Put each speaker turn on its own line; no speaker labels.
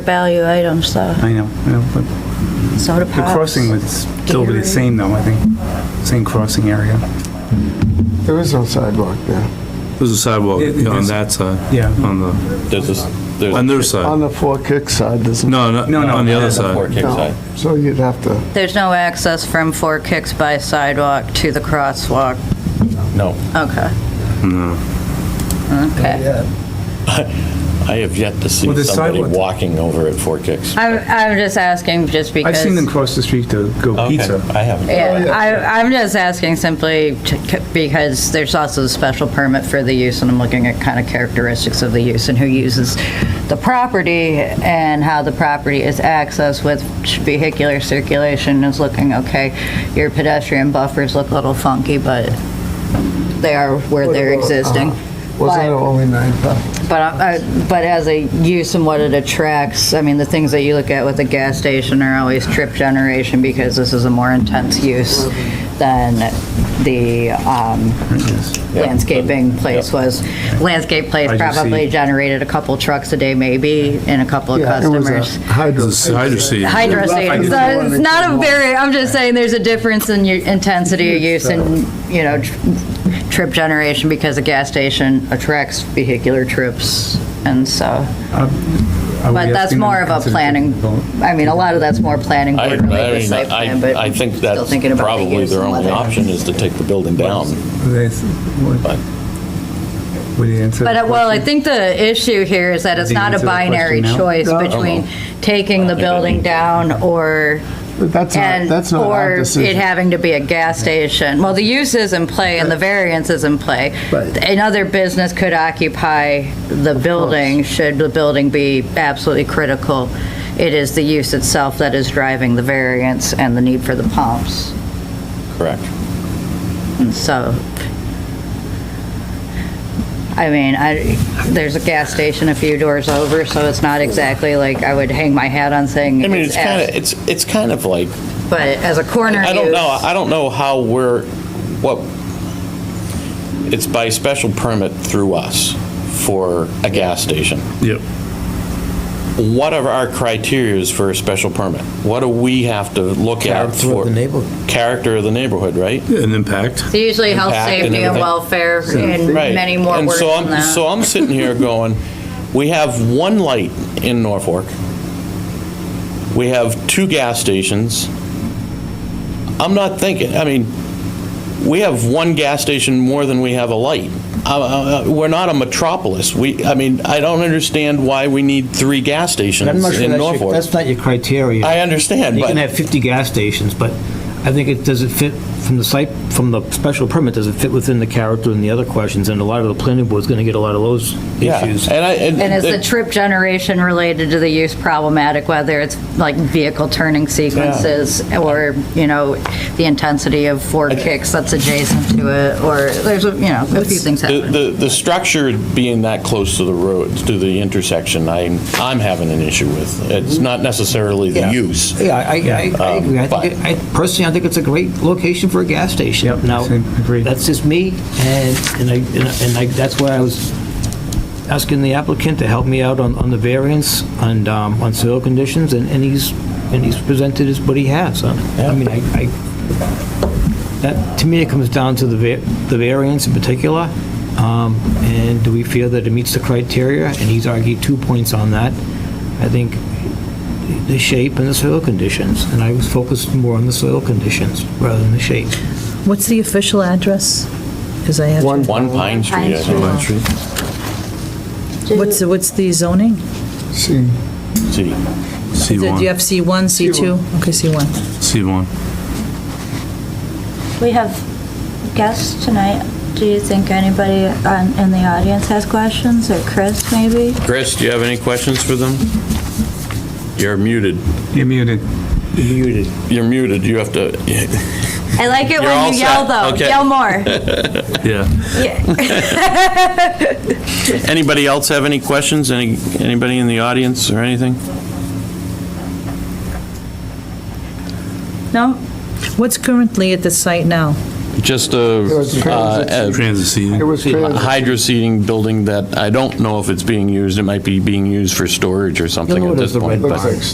value items though,
I know, I know, but
soda pops.
the crossing would still be the same though, I think, same crossing area.
There is no sidewalk there.
There's a sidewalk
It- it
on
is-
that side.
yeah.
On the,
There's this, there's.
on their
On
side.
the Four Kicks side, there's no.
No, no,
No, no,
on the
not
other
the Four
side.
Kick side.
So you'd have to,
There's no access from Four Kicks by sidewalk to the crosswalk?
No.
Okay. No. Okay.
I have yet to see
Well, there's
somebody
sidewalks.
walking over at Four Kicks.
I'm, I'm just asking just because.
I've seen them cross the street to go
Okay,
pizza.
I haven't.
Oh, Yeah, I, I'm just asking simply to- because there's also a special permit for the use, and I'm looking at kind of characteristics of the use and who uses the property and how the property is accessed with vehicular circulation is looking okay. Your pedestrian buffers look a little funky, but they are where they're existing.
wasn't it
But-
only nine parking?
but, I- I- but as a use and what it attracts, I mean, the things that you look at with a gas station are always trip generation because this is a more intense use than the um, landscaping place was. Landscape place
I just
probably
see-
generated a couple trucks a day maybe and a couple of
Yeah, it was
customers.
a hydro.
There's a hydro seat.
Hydro
I
station.
just
So
wanted
it's
to
not a
come on.
very, I'm just saying there's a difference in your intensity of use and,
uh,
you know, tr- trip generation because a gas station attracts vehicular trips. And so, but that's more of a planning, I mean, a lot of that's more planning
I, I
board related
mean,
site plan, but.
I, I think
still
that's
thinking about the
probably
use
their
and
only
whether-
option is to take the building down. But-
Would you answer?
But,
the
uh, well, I
question?
think the issue here is that it's
Do you
not a
answer the question
binary
now?
choice
No.
between taking the building down or
But That's not,
And,
that's not our
or it
decision.
having to be a gas station. Well, the use is in play and the variance is in play.
Right.
Another business could occupy the building, should the building be absolutely critical. It is the use itself that is driving the variance and the need for the pumps.
Correct.
And so, I mean, I, there's a gas station a few doors over, so it's not exactly like I would hang my hat on saying.
I mean, it's kind of,
as-
it's, it's kind of like,
But as a corner
I don't know,
use-
I don't know how we're, what, it's by special permit through us for a gas station.
Yep.
what are our criterias for a special permit? What do we have to look at
Character of
for?
the neighborhood.
Character of the neighborhood, right?
An impact.
It's Usually health,
Impact and
safety, and
everything.
welfare, and
Right.
many more
And
words
so
than
I'm- So
that.
I'm sitting here going, we have one light in Norfolk. We have two gas stations. I'm not thinking, I mean, we have one gas station more than we have a light. Uh, uh, We're not a metropolis. We, I mean, I don't understand why we need three gas stations
I'm not sure
in
that's your,
Norfolk.
that's not your criteria.
I understand,
You
but.
can have 50 gas stations, but I think it, does it fit from the site, from the special permit, does it fit within the character and the other questions? And a lot of the planning board's going to get a lot of those
Yeah,
issues.
and I, and.
And is the
it-
trip generation related to the use problematic, whether it's like vehicle turning sequences or, you know, the intensity of four kicks that's adjacent to it, or there's, a you know, a few things
The,
happen.
the, the structure being that close to the road, to the intersection, I, I'm having an issue with. It's not necessarily the
Yeah.
use.
Yeah, I, I- I
Um,
agree. I think,
but-
it- I, personally, I think it's a great location for a gas station.
Yep,
Now,
same, agreed.
that's just me, and, and I, and I- and I, that's why I was asking the applicant to help me out on, on the variance and, um, on soil conditions, and, and he's, and he's presented as what he has. I I mean, I, I, that, to me, it comes down to the, va- the variance in particular, um, and do we feel that it meets the criteria? And he's argued two points on that. I think the shape and the soil conditions, and I was focused more on the soil conditions rather than the shape.
What's the official address? Because I have,
One,
One Pine Street, I think,
what's, the- what's the zoning?
see,
see.
Do you have
C1.
C1, C2? Okay, C1.
C1.
We have guests tonight. Do you think anybody on, in the audience has questions, or Chris maybe?
Chris, do you have any questions for them? You're muted.
You're muted.
Muted.
You're muted. You have to,
I like it
You're all
when you yell
set.
though.
Okay.
Yell more.
Yeah.
anybody else have any questions? Any, anybody in the audience or anything?
No,
What's currently at the site now?
just
It was
a, uh,
transit.
Transit
It
seating.
was
a
transit.
hydro seating building that I don't know if it's being used. It might be being used for storage or
You'll
something
know
at
it as
this
the red
point. but-
barn.